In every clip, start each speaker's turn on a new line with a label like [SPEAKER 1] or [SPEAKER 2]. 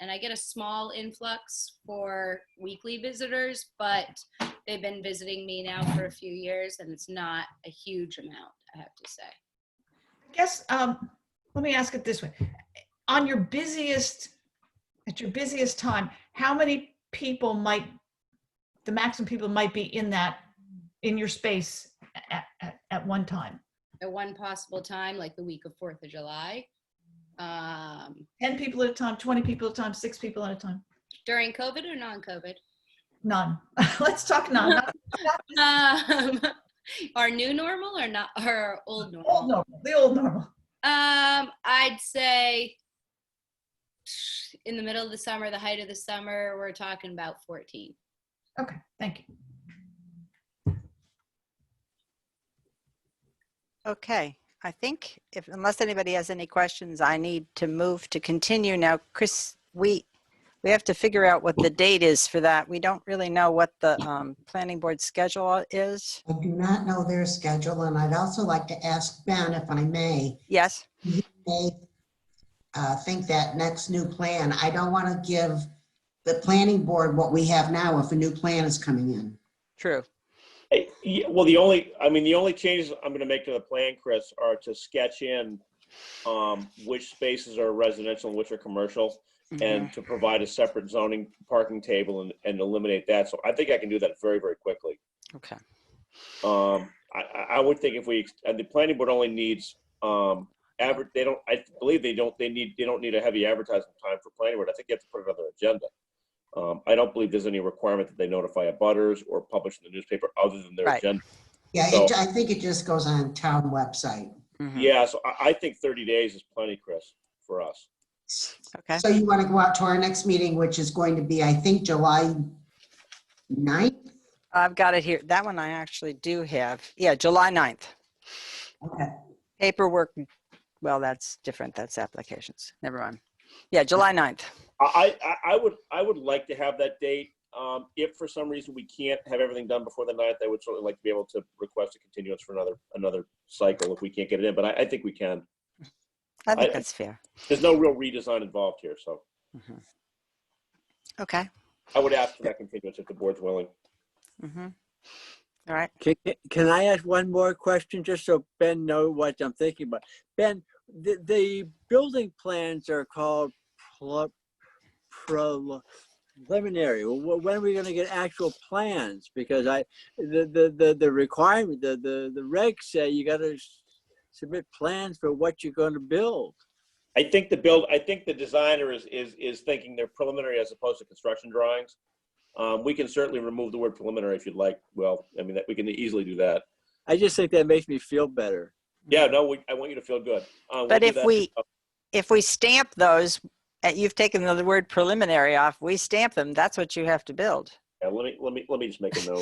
[SPEAKER 1] and I get a small influx for weekly visitors, but they've been visiting me now for a few years, and it's not a huge amount, I have to say.
[SPEAKER 2] I guess, um, let me ask it this way. On your busiest, at your busiest time, how many people might, the maximum people might be in that, in your space at, at, at one time?
[SPEAKER 1] At one possible time, like the week of Fourth of July, um,
[SPEAKER 2] 10 people at a time, 20 people at a time, six people at a time?
[SPEAKER 1] during COVID or non-COVID.
[SPEAKER 2] None. Let's talk none. Not
[SPEAKER 1] Um, our new normal or not? Our old
[SPEAKER 2] the
[SPEAKER 1] normal?
[SPEAKER 2] old normal, the old normal.
[SPEAKER 1] Um, I'd say in the middle of the summer, the height of the summer, we're talking about 14.
[SPEAKER 2] Okay, thank you.
[SPEAKER 3] Okay, I think if, unless anybody has any questions, I need to move to continue now. Chris, we, we have to figure out what the date is for that. We don't really know what the um, planning board schedule is.
[SPEAKER 4] I do not know their schedule, and I'd also like to ask Ben, if I may,
[SPEAKER 3] Yes,
[SPEAKER 4] may uh, think that next new plan, I don't want to give the planning board what we have now if a new plan is coming in.
[SPEAKER 3] true.
[SPEAKER 5] Hey, yeah, Well, the only, I mean, the only changes I'm gonna make to the plan, Chris, are to sketch in um, which spaces are residential and which are commercial,
[SPEAKER 3] Mhm.
[SPEAKER 5] and to provide a separate zoning parking table and, and eliminate that. So I think I can do that very, very quickly.
[SPEAKER 3] Okay,
[SPEAKER 5] Um, I, I- I would think if we, ex- and the planning board only needs, um, adver, they don't, I believe they don't, they need, they don't need a heavy advertising time for planning board. I think you have to put it on their agenda. Um, I don't believe there's any requirement that they notify abutters or publish in the newspaper other than their
[SPEAKER 3] Right.
[SPEAKER 5] agenda.
[SPEAKER 4] Yeah, it-
[SPEAKER 5] So-
[SPEAKER 4] I think it just goes on town website.
[SPEAKER 3] Mhm.
[SPEAKER 5] Yeah, so I, I think thirty days is plenty, Chris, for us.
[SPEAKER 3] okay,
[SPEAKER 4] So you want to go out to our next meeting, which is going to be, I think, July 9th?
[SPEAKER 3] I've got it here. That one I actually do have. Yeah, July 9th.
[SPEAKER 4] Okay.
[SPEAKER 3] Paperwork, well, that's different. That's applications. Never mind. Yeah, July 9th.
[SPEAKER 5] I, I, I would, I would like to have that date. Um, if for some reason we can't have everything done before the ninth, I would certainly like to be able to request a continuance for another, another cycle if we can't get it in, but I, I think we can.
[SPEAKER 3] I think
[SPEAKER 5] I-
[SPEAKER 3] that's fair.
[SPEAKER 5] There's no real redesign involved here, so
[SPEAKER 3] Mhm. Okay.
[SPEAKER 5] I would ask for that continuance if the board's willing.
[SPEAKER 3] Mhm. All right.
[SPEAKER 6] Can, can I ask one more question, just so Ben know what I'm thinking about? Ben, the, the building plans are called pl- prel- preliminary. Wh- When are we gonna get actual plans? Because I, the, the, the, the requirement, the, the, the regs say you gotta s- submit plans for what you're gonna build.
[SPEAKER 5] I think the build, I think the designer is, is, is thinking they're preliminary as opposed to construction drawings. Um, we can certainly remove the word preliminary if you'd like. Well, I mean, that, we can easily do that.
[SPEAKER 6] I just think that makes me feel better.
[SPEAKER 5] Yeah, no, we, I want you to feel good. Uh, we'll
[SPEAKER 3] But
[SPEAKER 5] do
[SPEAKER 3] if
[SPEAKER 5] that.
[SPEAKER 3] we- If we stamp those, uh, you've taken the word preliminary off, we stamp them, that's what you have to build.
[SPEAKER 5] Yeah, let me, let me, let me just make a note.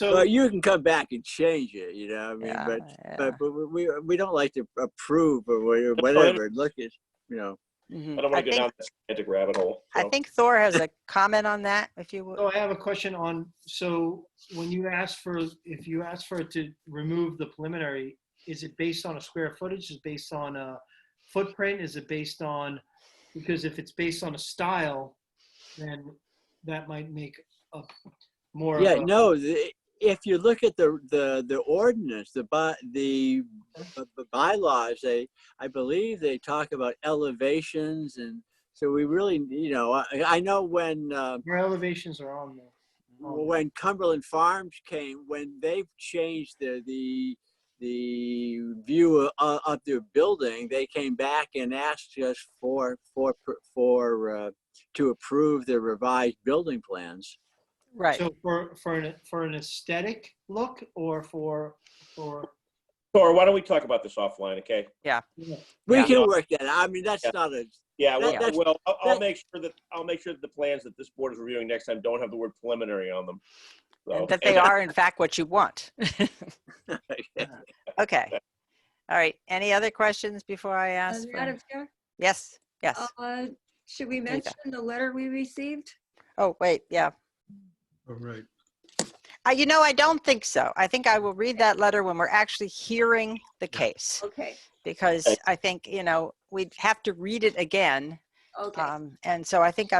[SPEAKER 6] Well,
[SPEAKER 7] So,
[SPEAKER 6] you can come back and change it, you know, I mean,
[SPEAKER 3] Yeah,
[SPEAKER 6] but
[SPEAKER 3] yeah.
[SPEAKER 6] But, but we- we, we don't like to approve or wha-
[SPEAKER 5] fine.
[SPEAKER 6] whatever. Look at, you know,
[SPEAKER 3] Mhm.
[SPEAKER 5] I don't want to go
[SPEAKER 3] think-
[SPEAKER 5] down that semantic rabbit hole.
[SPEAKER 3] I
[SPEAKER 5] so.
[SPEAKER 3] think Thor has a comment on that, if you would.
[SPEAKER 7] so I have a question on, so when you ask for, if you ask for it to remove the preliminary, is it based on a square footage? Is it based on a footprint? Is it based on, because if it's based on a style, then that might make a more. uh, of
[SPEAKER 6] yeah,
[SPEAKER 7] a-
[SPEAKER 6] no, the- if you look at the, the, the ordinance, the by, the b- b- bylaws, they, I believe they talk about elevations and so we really, you know, I, I know when, uh,
[SPEAKER 7] Your elevations are on there.
[SPEAKER 6] when Cumberland Farms came, when they changed the, the, the view of, of their building, they came back and asked us for, for, for, uh, to approve the revised building plans.
[SPEAKER 3] Right.
[SPEAKER 7] So for, for an, for an aesthetic look or for, for,
[SPEAKER 5] Thor, why don't we talk about this offline, okay?
[SPEAKER 6] We
[SPEAKER 3] Yeah.
[SPEAKER 6] can work that, out. I mean, that's
[SPEAKER 5] Yeah.
[SPEAKER 6] not a,
[SPEAKER 5] Yeah, well,
[SPEAKER 6] That- that's-
[SPEAKER 5] well, I'll, I'll
[SPEAKER 6] that-
[SPEAKER 5] make sure that, I'll make sure that the plans that this board is reviewing next time don't have the word preliminary on them. So-
[SPEAKER 3] That they are in fact what you want. Okay. All right. Any other questions before I
[SPEAKER 8] Uh,
[SPEAKER 3] ask? for-
[SPEAKER 8] Madam Chair,
[SPEAKER 3] Yes, yes.
[SPEAKER 8] uh, should we
[SPEAKER 3] Rita.
[SPEAKER 8] mention the letter we received?
[SPEAKER 3] Oh, wait, yeah.
[SPEAKER 7] All right.
[SPEAKER 3] Uh, You know, I don't think so. I think I will read that letter when we're actually hearing the case.
[SPEAKER 8] Okay,
[SPEAKER 3] because
[SPEAKER 5] Okay.
[SPEAKER 3] I think, you know, we'd have to read it again
[SPEAKER 8] Okay.
[SPEAKER 3] Um, And so I think